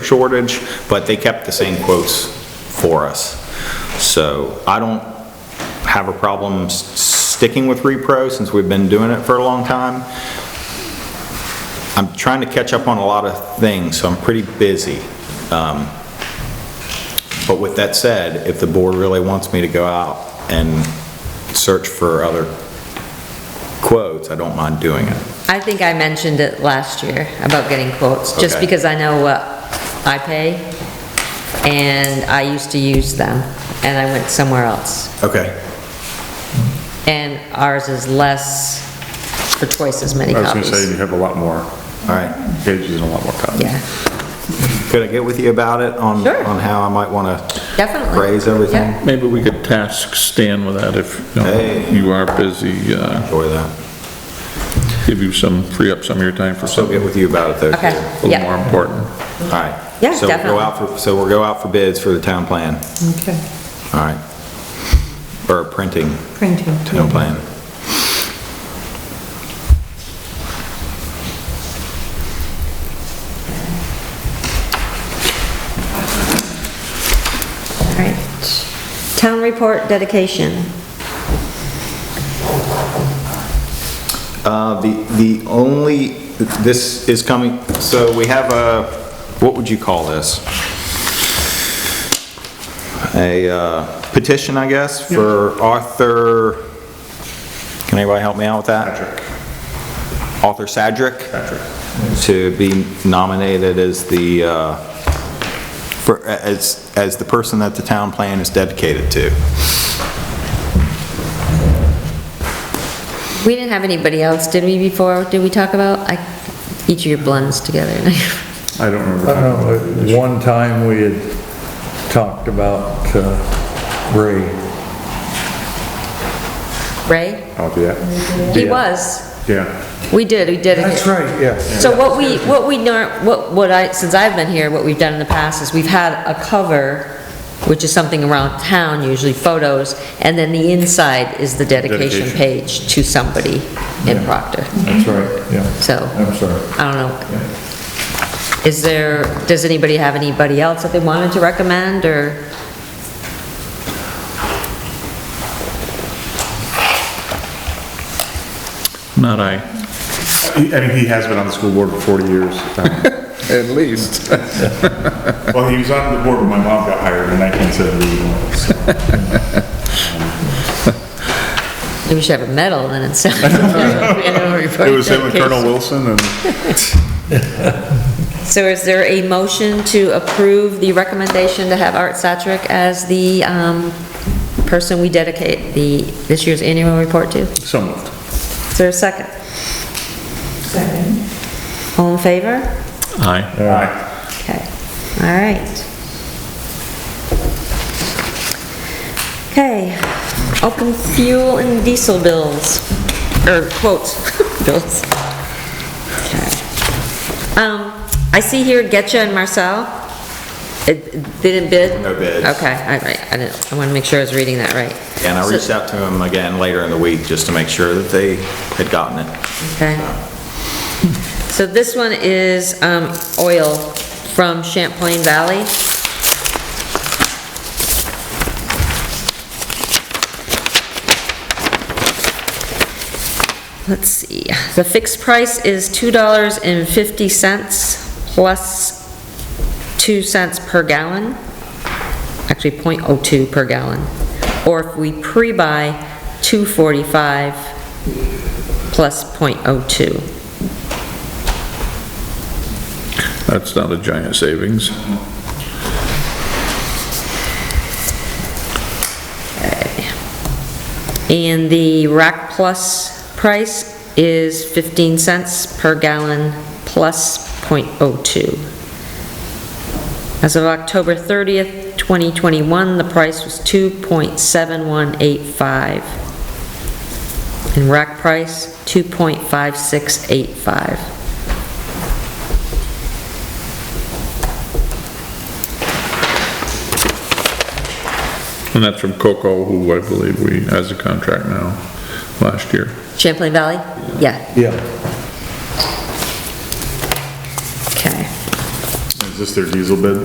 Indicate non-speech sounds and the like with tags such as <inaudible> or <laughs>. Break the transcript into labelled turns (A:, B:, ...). A: shortage, but they kept the same quotes for us. So I don't have a problem s- sticking with Repro since we've been doing it for a long time. I'm trying to catch up on a lot of things, so I'm pretty busy. Um, But with that said, if the board really wants me to go out and search for other quotes, I don't mind doing it.
B: I think I mentioned it last year about getting quotes, just
A: Okay.
B: because I know what I pay, and I used to use them, and I went somewhere else.
A: Okay.
B: And ours is less, for twice as many
C: I was gonna say,
B: copies.
C: you have a lot more
A: All right.
C: pages and a lot more copies.
B: Yeah,
A: Could I get with you about it on,
B: Sure.
A: on how I might want to
B: definitely.
A: phrase everything?
B: Yeah.
D: Maybe we could task Stan with that if you
A: Hey.
D: know, you are busy, uh,
A: Enjoy that.
D: give you some, free up some of your time for
A: So I'll
D: something
A: get with you about it though. too.
B: Okay,
D: a little more
B: yeah,
D: important.
A: All right.
B: Yeah,
A: So we'll go
B: definitely.
A: out for, so we'll go out for bids for the town plan.
E: Okay,
A: All right. Or printing,
E: printing.
A: town plan.
B: all right. Town report dedication.
A: Uh, the, the only, this is coming, so we have a, what would you call this? A uh, petition, I guess, for Arthur, can anybody help me out with that? Arthur Sadrick? To be nominated as the, uh, for, as, as the person that the town plan is dedicated to.
B: We didn't have anybody else, did we, before? Did we talk about, I, each of your blends together? <laughs>
C: I don't
F: I don't know,
C: remember.
F: at one time we had talked about uh, Ray.
B: Ray?
C: Oh, yeah.
B: He
C: Yeah.
B: was.
C: Yeah,
B: We did, we did.
F: right, yes.
B: So what we, what we, nor- what, what I, since I've been here, what we've done in the past is we've had a cover, which is something around town, usually photos, and then the inside is the dedication
C: Dedication.
B: page to somebody in Proctor.
F: That's right, yeah.
B: So,
F: I'm sorry.
B: I don't know. Is there, does anybody have anybody else that they wanted to recommend, or?
D: Not I.
C: He- I mean, he has been on the school board for 40 years. Um,
D: At least.
C: Well, he was on the board when my mom got hired in 1971. so.
B: Maybe we should have a medal then <laughs>
C: <laughs>
B: instead.
C: It was him and Colonel Wilson and
B: So is there a motion to approve the recommendation to have Art Satrick as the um, person we dedicate the, this year's annual report to?
C: so moved.
B: Is there a second?
E: Second.
B: All in favor?
D: Aye.
C: Aye.
B: Okay, all right. Okay, open fuel and diesel bills, or quotes, <laughs> bills. Okay. Um, I see here Getcha and Marcel. It- it- They didn't bid?
A: No bids.
B: Okay, all right, I didn't, I want to make sure I was reading that right.
A: And I
B: So-
A: reached out to him again later in the week just to make sure that they had gotten it.
B: Okay. So this one is, um, oil from Champlain Valley. Let's see, the fixed price is two dollars and fifty cents plus two cents per gallon. Actually, point oh two per gallon. Or if we pre-buy, two forty-five plus .02.
D: That's not a giant savings.
B: And the Rack Plus price is 15 cents per gallon plus .02. As of October 30th, 2021, the price was 2.7185. And rack price, 2.5685.
D: And that's from Coco, who I believe we, has a contract now, last year.
B: Champlain Valley? Yeah,
F: Yeah,
B: okay.
C: Is this their diesel bid?